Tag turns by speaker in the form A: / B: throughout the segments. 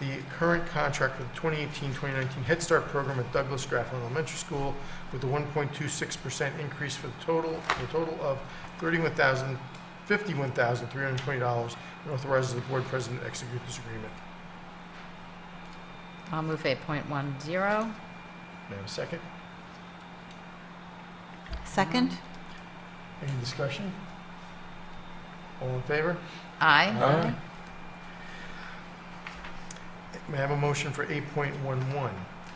A: the current contract for the 2018-2019 Head Start program at Douglas Grafflin Elementary School with a 1.26% increase for the total, a total of $31,000 $51,320 and authorizes the board president to execute this agreement.
B: I'll move 8.10.
A: May I have a second?
C: Second?
A: Any discussion? All in favor?
B: Aye.
A: May I have a motion for 8.11?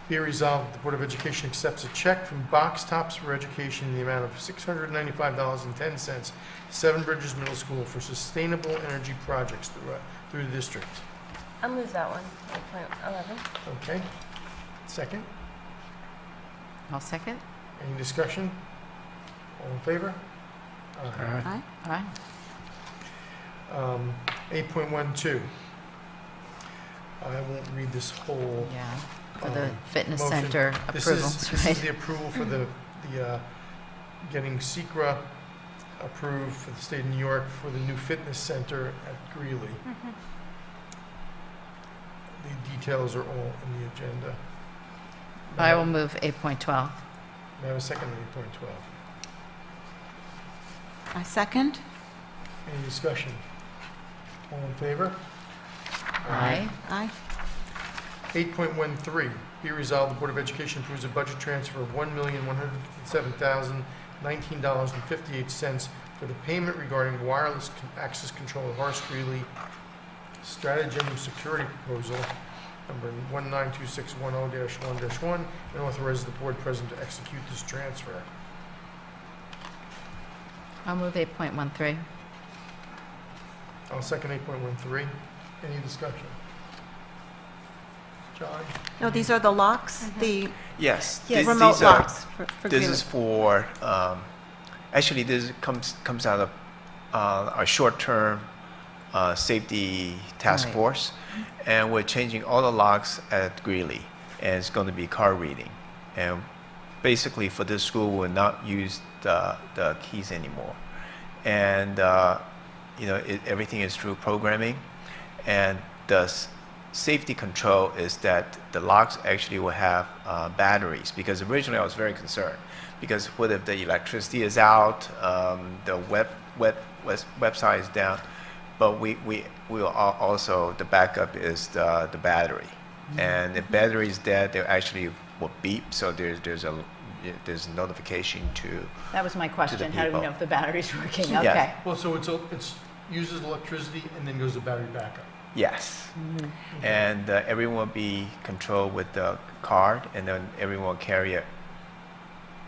A: Be it resolved that the Board of Education accepts a check from Box Tops for Education in the amount of $695.10, Seven Bridges Middle School for sustainable energy projects through, uh, through the district.
D: I'll move that one, eight point eleven.
A: Okay? Second?
B: I'll second.
A: Any discussion? All in favor? Aye.
C: Aye.
B: Aye.
A: Um, 8.12. I won't read this whole
B: Yeah, for the
A: Um,
B: fitness
A: motion.
B: center
A: This is-
B: approvals,
A: This is
B: right?
A: the approval for the, the, uh, getting Secra approved for the state of New York for the new fitness center at Greeley.
B: Mm-hmm.
A: The details are all in the agenda. May
B: I will move 8.12.
A: May I have a second on eight point twelve?
C: I second?
A: Any discussion? All in favor?
B: Aye.
C: Aye.
A: 8.13, be resolved, the Board of Education approves a budget transfer of $1,157,019.58 for the payment regarding wireless con- access control of Horace Greeley Stratagem Security Proposal, number 192610-1-1, and authorizes the Board President to execute this transfer.
B: I'll move 8.13.
A: I'll second 8.13. Any discussion? John?
C: No, these are the locks, the
E: Mm-hmm. Yes.
C: the
E: these-
C: remote
E: these uh, are-
C: locks for for
E: This is
C: Greeley.
E: for, um, actually, this comes, comes out of uh, our short-term uh, safety task
B: Right.
E: force. And we're changing all the locks at Greeley, and it's going to be car reading. And basically, for this school, we'll not use the, the keys anymore. And, uh, you know, it, everything is through programming. And the s- safety control is that the locks actually will have uh, batteries because originally I was very concerned because what if the electricity is out, um, the web, web, wes- website is down, but we, we, we will al- also, the backup is the, the battery. And if battery is dead, they actually will beep, so there's, there's a, there's a notification to,
B: That was my question. How do we
E: people.
B: know if the battery's working?
E: Yes.
B: Okay.
A: Well, so it's, a- it's, uses electricity and then goes to battery backup.
E: yes. and uh, everyone will be controlled with the card, and then everyone will carry a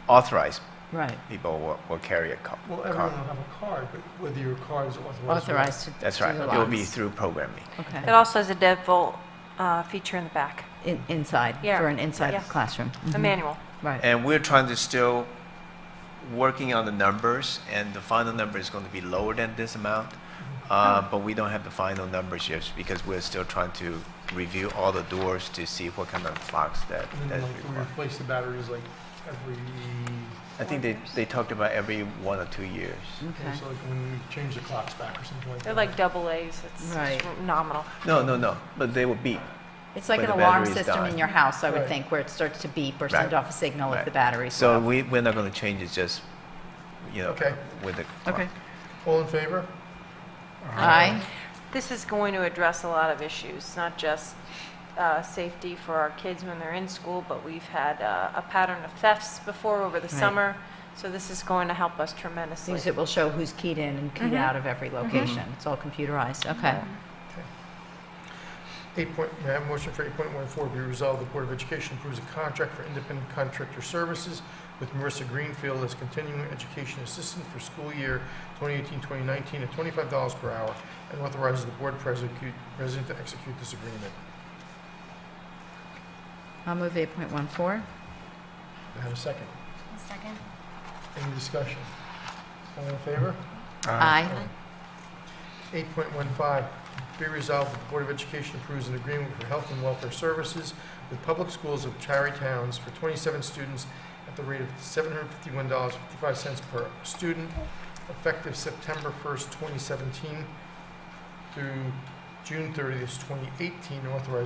E: authorized
B: Right.
E: people will, will carry a co-
A: Well, everyone
E: card.
A: will have a card, but whether your card is authorized. or not.
B: Authorized to do the
E: That's right. It will be
B: locks.
E: through programming.
D: It
B: Okay.
D: also has a deadbolt uh, feature in the back,
B: In- Inside,
D: Yeah.
B: for an inside
D: Yeah.
B: classroom.
D: a
B: Mhm.
D: manual.
B: Right.
E: And we're trying to still working on the numbers, and the final number is going to be lower than this amount. Uh, but we don't have the final numbers yet because we're still trying to review all the doors to see what kind of locks that
A: And then
E: that's
A: like we
E: required.
A: replace the batteries like every,
E: I think they, they talked about every one or two years.
B: Okay.
A: so like when we change the clocks back or something like that.
D: They're like double A's. It's
B: Right.
D: nominal.
E: No, no, no. But they will beep.
B: It's like
E: When
B: an
E: the
B: alarm
E: battery's
B: system in
E: dying.
B: your house, I would
A: Right.
B: think, where it starts to beep or send
E: Right.
B: off a signal if
E: Right.
B: the battery's
E: So
B: low.
E: we, we're not going to change it just, you know,
A: Okay.
E: with the.
B: Okay.
A: All in favor?
B: Aye.
D: This is going to address a lot of issues, not just uh, safety for our kids when they're in school, but we've had uh, a pattern of thefts before over the
B: Right.
D: summer. So this is going to help us tremendously.
B: Because it will show who's keyed in and keyed out of every location. It's all computerized. Okay.
A: Eight point, may I have a motion for eight point one four, be resolved, the Board of Education approves a contract for independent contractor services with Marissa Greenfield as continuing education assistant for school year 2018-2019 at twenty-five dollars per hour and authorizes the board president, president to execute this agreement.
B: I'll move 8.14.
A: May I have a second?
D: Second.
A: Any discussion? All in favor?
B: Aye.
A: 8.15, be resolved that the Board of Education approves an agreement for health and welfare services with public schools of Cherry Towns for 27 students at the rate of $751.55 per student, effective September 1st, 2017 through June 30th, 2018, authorized